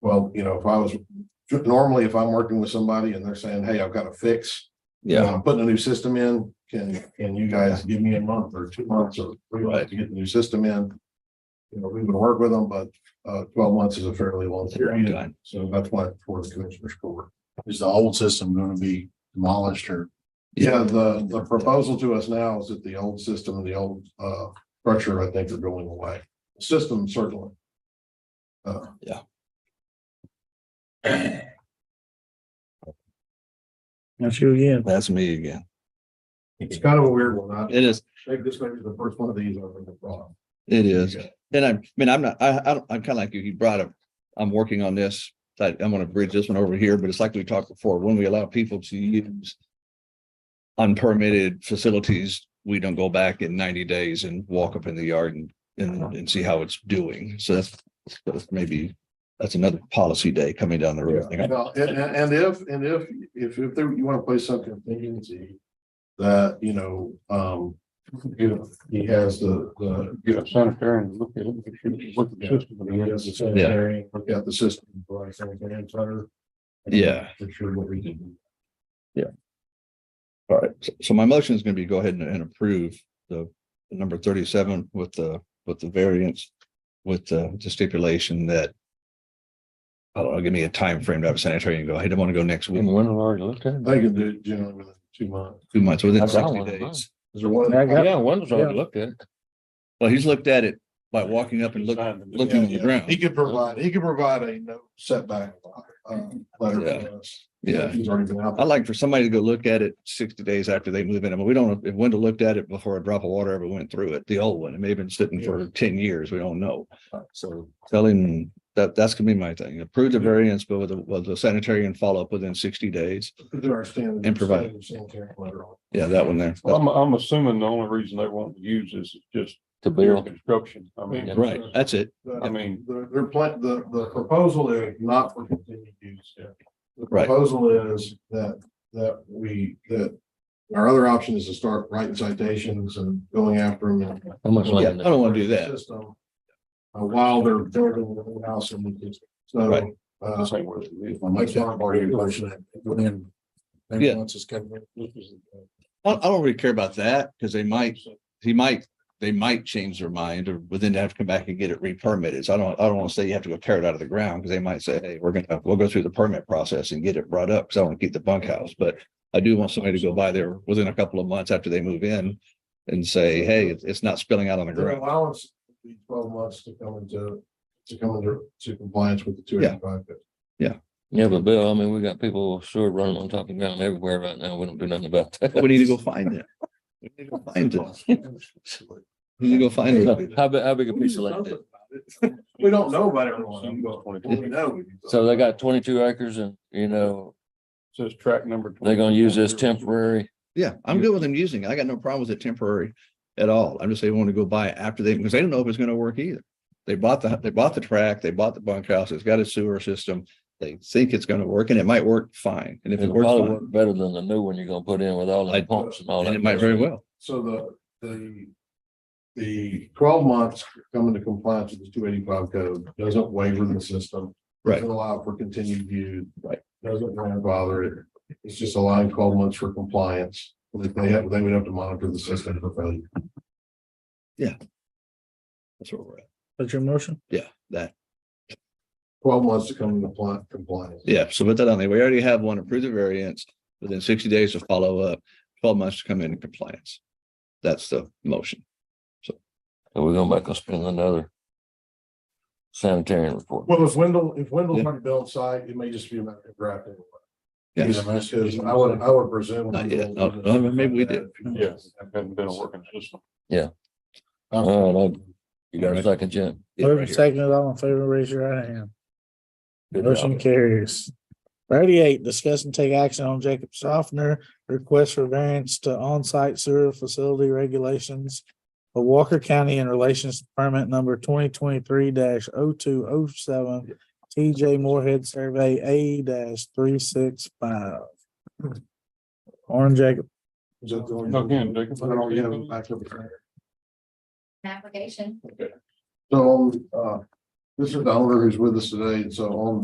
Well, you know, if I was, normally if I'm working with somebody and they're saying, hey, I've got a fix. you know, Yeah, I'm putting a new system in, can, can you guys give me a month or two months or three months to get the new system in? You know, we would work with them, but, uh, twelve months is a fairly long period, done. so that's why it's for the commissioner's court. Is the old system gonna be demolished or? Yeah, the, the proposal to us now is that the old system and the old, uh, structure, I think are going away. System certainly. Uh, That's you again. that's me again. it's kind of a weird one. I It is, think this may be the first one of these I've ever brought up. it is. And I, I mean, I'm not, I, I, don't- I'm kind of like you, you brought up, I'm working on this. I, I'm gonna bridge this one over here, but it's like we talked before, when we allow people to use unpermitted facilities, we don't go back in ninety days and walk up in the yard and, Uh-huh. and, and see how it's doing. So that's, that's maybe, that's another policy day coming down the road. Yeah, Well, and, and and if, and if, if, if there, you want to place some contingency that, you know, um, you know, he has the, the, you know, Sanitarian, look at it, look at the system. he has the sanitary, look at the system, like sanitary center. Yeah. For sure what we can do. All right, so- so my motion is gonna be go ahead and- and approve the the number thirty-seven with the, with the variance, with the the stipulation that I don't know, give me a time frame to have a sanitary and go, hey, I want to go next week, one already looked at Uh, They can do it generally within two months. two months, within I've got sixty one, huh? days. Is there one? Yeah, one's already already looked at. Well, he's looked at it by walking up and looking, looking on the ground. He could provide, he could provide a no setback, uh, letter Yeah. for us. yeah. He's already been out. I like for somebody to go look at it sixty days after they move in, I mean, we don't, know if Wendell looked at it before a drop of water ever went through it, the old one, it may have been sitting for ten years, we don't know. there, So. Tell him that that's gonna be my thing. Approve the variance, but with the, with the sanitary and follow up within sixty days. Do our standard. And provide. Sanitary letter on. Yeah, that one there. Well, I'm, I'm assuming the only reason they want to use this is just To their build. construction. I mean. Right, that's it. I mean, The, their plan, the, the proposal is not for continued use. yeah. The Right. proposal is that, that we, that our other option is to start writing citations and going after them. and- How much Yeah, I land? don't wanna do that. System, uh, While they're building the new house and we can, so. Right. Uh, this ain't worth it. my son already questioned it within. maybe Yeah. once it's kind of- this is, uh, I, I don't really care about that because they might, he might, they might change their mind or within have to come back and get it re-permitted. So I don't, I don't want to say you have to go tear it out of the ground because they might say, hey, we're gonna, we'll go through the permit process and get it brought up because I want to keep the bunkhouse. But I do want somebody to go by there within a couple of months after they move in and say, hey, it's- it's not spilling out on the The ground. allowance would be twelve months to come into, to come into, to compliance with the two Yeah. eighty-five. Yeah, but Bill, I mean, we got people with sewer running on top of the ground everywhere right now. We don't do nothing about that. But we need to go find it. We need to go find it. We need to go find it. How big, how big a piece of land? is it? We don't know about everyone. Well, we know. So they got twenty-two acres and, you know, Says track number. they're gonna use this 22. temporary. Yeah, I'm good with them using it. I got no problem with it temporary at all. I'm just saying, want to go buy it after they, because they don't know if it's gonna work either. They bought the, they bought the track, they bought the bunkhouse, it's got a sewer system. They think it's gonna work and it might work fine. And if it It'll works probably fine, work better than the new one you're gonna put in with all the I'd- pumps and all and that. it might very well. So the, the, the twelve months coming to compliance with the two eighty-five code doesn't waiver the system. Right. Doesn't allow for continued use. Right. Doesn't grandfather it. It's just allowing twelve months for compliance. If They have, they would have to monitor the system for failure. That's where we're at. That's your motion? Yeah, that, Twelve months to come into pli- compliance. yeah. So put that on there. We already have one approved the variance within sixty days to follow up, twelve months to come into compliance. That's the motion. So we're going back and spend another sanitary report. Well, if Wendell, if Wendell's not built site, it may just be a matter of drafting. Yeah. Because I would, I would presume. Not yet. No, no, maybe we did. Yes, it hasn't been a working system. All right, I- you got a second, Jim? Yeah, right here. second, all in favor, raise your right hand. Motion carries. Thirty-eight, discuss and take action on Jacob Softner, request for variance to on-site sewer facility regulations of Walker County in relations to permit number twenty twenty-three 2 oh two oh seven TJ Moorhead Survey A three six five. Orange Jacob, Again, they can put it on the end. application. So, um, uh, this is the owner who's with us today, and so on